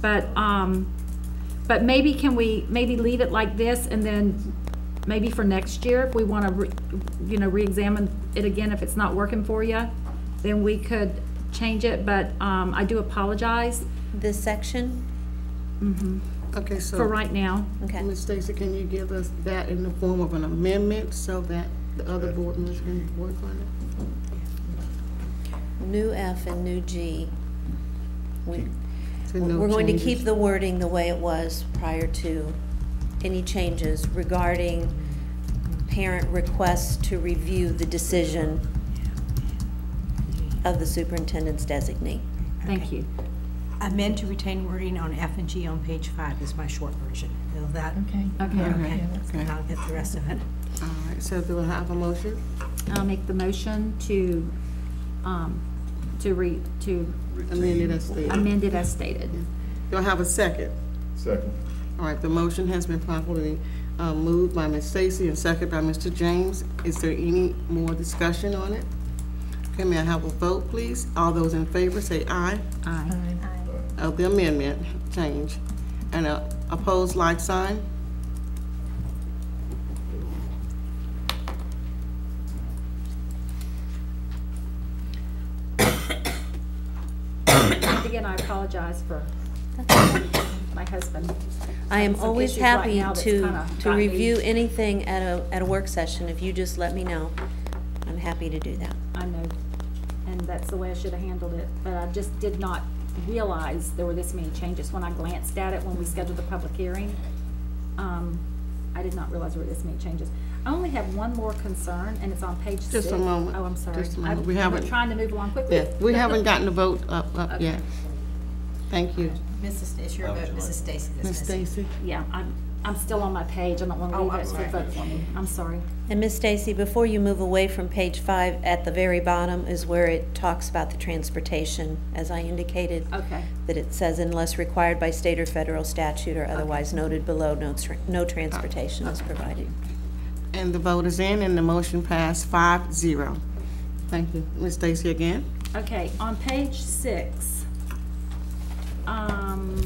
But, um, but maybe can we, maybe leave it like this and then maybe for next year, if we want to, you know, reexamine it again, if it's not working for you, then we could change it, but, um, I do apologize This section? Okay, for so, right now. Okay. Ms. Stacy, can you give us that in the form of an amendment so that the other board members can work on it? Mm-hmm. New F and new G. We- So no We're going to keep changes. the wording the way it was prior to any changes regarding parent requests to review the decision of the superintendent's designee. Thank you. Amend to retain wording on F and G on page five is my short version. Will that, Okay. Okay, okay, okay. I'll get the rest of it. All right, so do I have a motion? I'll make the motion to, um, to re, to Amended as stated. amend it as stated. Do I have a second? Second. All right, the motion has been properly uh, moved by Ms. Stacy and second by Mr. James. Is there any more discussion on it? Okay, may I have a vote, please? All those in favor say aye Aye. of the amendment change. And uh, opposed, like sign? And Again, I apologize for my husband. I am Some always issues right happy now that's to, kinda to got me. review anything at a, at a work session. If you just let me know, I'm happy to do that. I know, and that's the way I should have handled it, but I just did not realize there were this many changes. When I glanced at it when we scheduled the public hearing, um, I did not realize there were this many changes. I only have one more concern, and it's on page six. Just a moment. Oh, I'm sorry. Just a moment. I've- We I'm haven't- Trying to move along quickly. Yes, we haven't gotten the vote up, up yet. Thank you. Mrs., it's your vote, Mrs. Stacy that's Ms. missing. Stacy? Yeah, I'm, I'm still on my page. I don't want to Oh, leave I'm it for sorry. vote for me. I'm sorry. And Miss Stacy, before you move away from page five, at the very bottom is where it talks about the transportation, as I indicated. Okay. That it says unless required by state or federal statute or otherwise noted below, no, tr- no transportation is provided. And the vote is in, and the motion passed five zero. Thank you. Ms. Stacy again? Okay, on page six, um,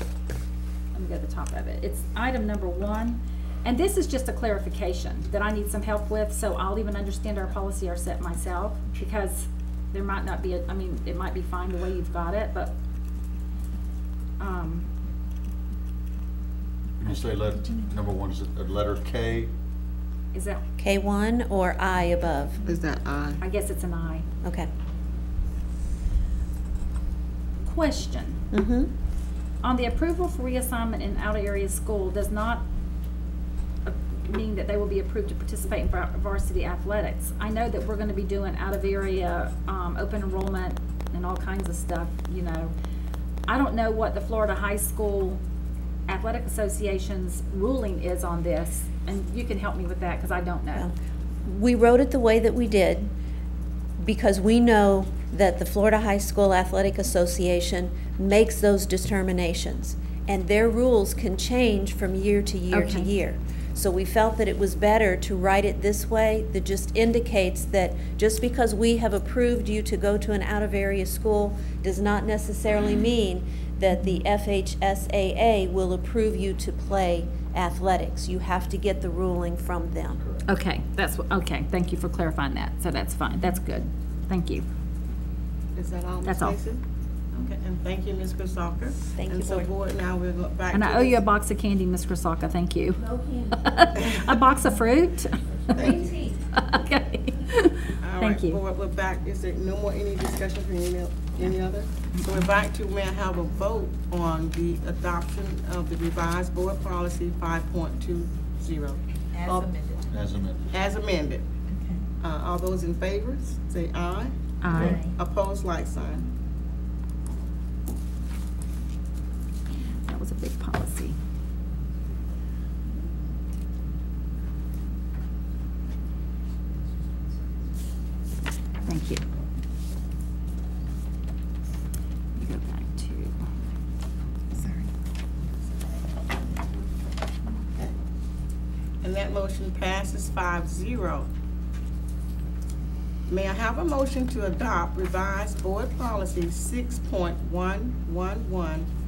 let me go to the top of it. It's item number one, and this is just a clarification that I need some help with, so I'll even understand our policy or set myself, because there might not be, a- I mean, it might be fine the way you've got it, but, um, You say letter, number one is a letter K, is that, K one or I above? Is that uh, aye? I guess it's an I. Okay. Question. Mm-hmm. on the approval for reassignment in out-of-area school does not uh, mean that they will be approved to participate in var- varsity athletics. I know that we're gonna be doing out-of-area, um, open enrollment and all kinds of stuff, you know. I don't know what the Florida High School Athletic Association's ruling is on this, and you can help me with that, cause I don't know. We wrote it the way that we did because we know that the Florida High School Athletic Association makes those determinations. And their rules can change from year to year to Okay. year. So we felt that it was better to write it this way that just indicates that just because we have approved you to go to an out-of-area school does not necessarily mean that the FHSAA will approve you to play athletics. You have to get the ruling from them. Okay, that's, wh- okay, thank you for clarifying that, so that's fine, that's good, thank you. Is that all, Ms. That's all. Stacy? Okay, and thank you, Ms. Chrisalka. Thank And you, so, Board. Board, now we'll go back to... And I owe you a this- box of candy, Ms. Grisalka, thank you. A box of fruit? Thank you. Okay. All Thank right, you. Board, we're back. Is there no more any discussion from any, el- any other? So we're back to, may I have a vote on the adoption of the revised Board Policy 5.20 As Oh. amended. as amended. as amended? Uh, All those in favor, say aye. Aye. Opposed, like sign. That was a big policy. Thank you. Let me Go back to, And that motion passes 5-0. May I have a motion to adopt revised Board Policy 6.111,